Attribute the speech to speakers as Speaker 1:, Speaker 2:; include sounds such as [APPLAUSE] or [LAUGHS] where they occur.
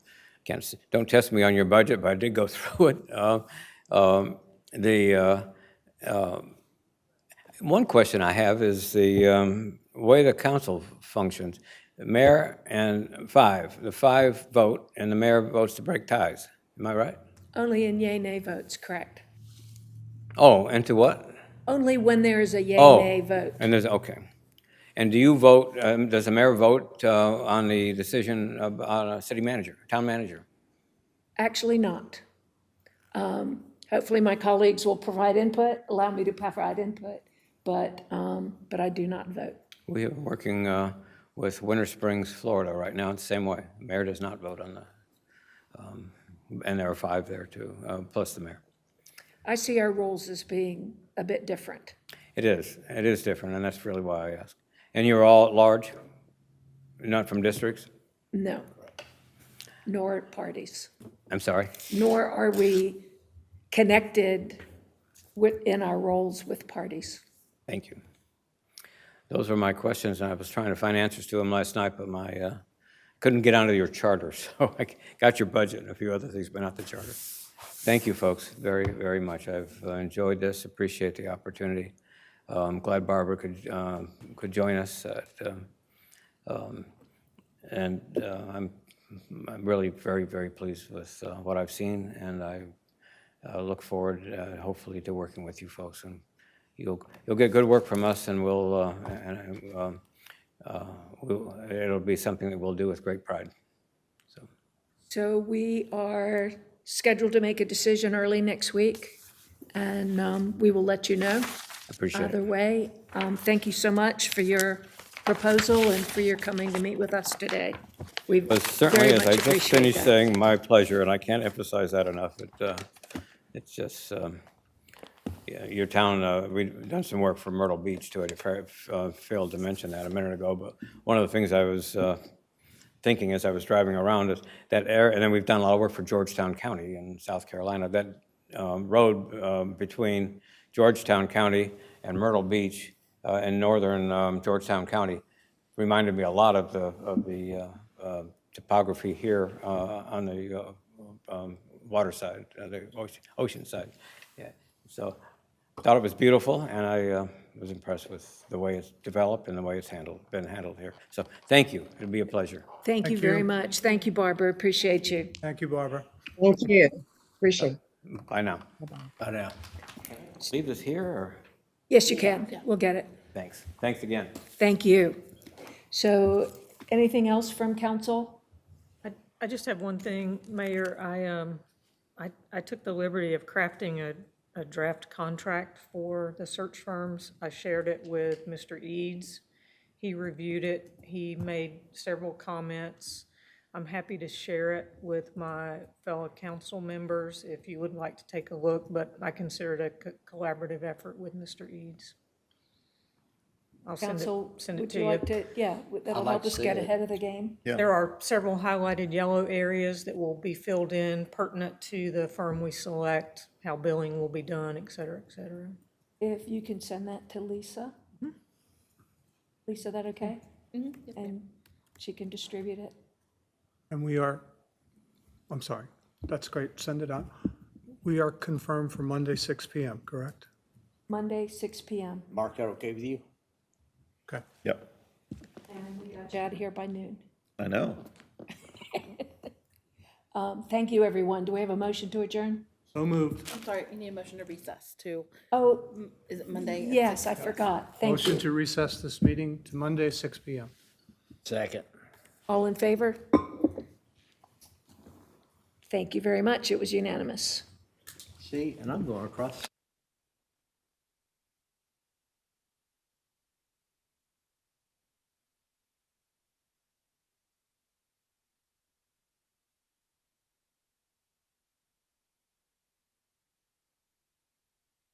Speaker 1: can't, s- don't test me on your budget, but I did go [LAUGHS] through it. Uh, um, The, uh, um, one question I have is the um, way the council functions. The Mayor and five, the five vote, and the mayor votes to break ties. Am I right?
Speaker 2: Only in yay nay votes, correct.
Speaker 1: Oh, and to what?
Speaker 2: Only when there is a yay
Speaker 1: Oh.
Speaker 2: nay vote.
Speaker 1: And there's, okay. And do you vote, um, does the mayor vote uh, on the decision of- on a city manager, town manager?
Speaker 2: Actually not. Um, Hopefully, my colleagues will provide input, allow me to provide input, but, um, but I do not vote.
Speaker 1: We are working uh, with Winter Springs, Florida right now, it's the same way. Mayor does not vote on the, um, and there are five there too, uh, plus the mayor.
Speaker 2: I see our roles as being a bit different.
Speaker 1: It is, it is different, and that's really why I ask. And you're all at large? Not from districts?
Speaker 2: No. Nor parties.
Speaker 1: I'm sorry?
Speaker 2: Nor are we connected with, in our roles with parties.
Speaker 1: Thank you. Those were my questions, and I was trying to find answers to them last night, but my, uh, couldn't get onto your charter, [LAUGHS] so I got your budget and a few other things, but not the charter. Thank you, folks, very, very much. I've uh, enjoyed this, appreciate the opportunity. Uh, I'm glad Barbara could, um, could join us, at, um, um, and uh, I'm I'm really very, very pleased with uh, what I've seen, and I uh, look forward, uh, hopefully, to working with you folks, and you'll, you'll get good work from us, and we'll, uh, and, um, uh, we'll- it'll be something that we'll do with great pride.
Speaker 2: So we are scheduled to make a decision early next week, and um, we will let you know
Speaker 1: Appreciate
Speaker 2: either
Speaker 1: it.
Speaker 2: way. Um, Thank you so much for your proposal and for your coming to meet with us today. We very
Speaker 1: But certainly, as
Speaker 2: much
Speaker 1: I just
Speaker 2: appreciate
Speaker 1: finished
Speaker 2: that.
Speaker 1: saying, my pleasure, and I can't emphasize that enough, it, uh, it's just, um, yeah, your town, uh, we've done some work for Myrtle Beach, too, I fa- uh, failed to mention that a minute ago, but one of the things I was uh, thinking as I was driving around is that area, and then we've done a lot of work for Georgetown County in South Carolina, that um, road um, between Georgetown County and Myrtle Beach uh, in northern um, Georgetown County reminded me a lot of the, of the uh, uh, topography here uh, on the uh, um, water side, uh, the ocean- ocean side. Yeah. So thought it was beautiful, and I uh, was impressed with the way it's developed and the way it's handled, been handled here. So thank you. It'd be a pleasure.
Speaker 2: Thank you very much. Thank you, Barbara. Appreciate you.
Speaker 3: Thank you, Barbara.
Speaker 4: Thank you. Appreciate it.
Speaker 1: Bye now. Bye now. Leave this here, or?
Speaker 2: Yes, you can. We'll get it.
Speaker 1: Thanks. Thanks again.
Speaker 2: Thank you. So anything else from council?
Speaker 5: I- I just have one thing, Mayor. I, um, I, I took the liberty of crafting a, a draft contract for the search firms. I shared it with Mr. Eads. He reviewed it. He made several comments. I'm happy to share it with my fellow council members if you would like to take a look, but I consider it a co- collaborative effort with Mr. Eads. I'll send it,
Speaker 2: Council,
Speaker 5: send it
Speaker 2: would
Speaker 5: to
Speaker 2: you
Speaker 5: you.
Speaker 2: like to, yeah, that'll help us get ahead of the game.
Speaker 5: There are several highlighted yellow areas that will be filled in pertinent to the firm we select, how billing will be done, et cetera, et cetera.
Speaker 2: If you can send that to Lisa? Lisa, that okay? Mm-hmm. And she can distribute it?
Speaker 3: And we are, I'm sorry, that's great, send it on. We are confirmed for Monday, 6 PM, correct?
Speaker 2: Monday, 6 PM.
Speaker 6: Mark, that okay with you?
Speaker 3: Okay.
Speaker 7: Yep,
Speaker 2: And we got you out of here by noon.
Speaker 7: I know.
Speaker 2: Um, Thank you, everyone. Do we have a motion to adjourn?
Speaker 3: So moved.
Speaker 8: I'm sorry, you need a motion to recess to,
Speaker 2: Oh,
Speaker 8: is it Monday?
Speaker 2: yes, I forgot. Thank
Speaker 3: Motion
Speaker 2: you.
Speaker 3: to recess this meeting to Monday, 6 PM.
Speaker 6: Second.
Speaker 2: All in favor? Thank you very much. It was unanimous.
Speaker 6: See, and I'm going across.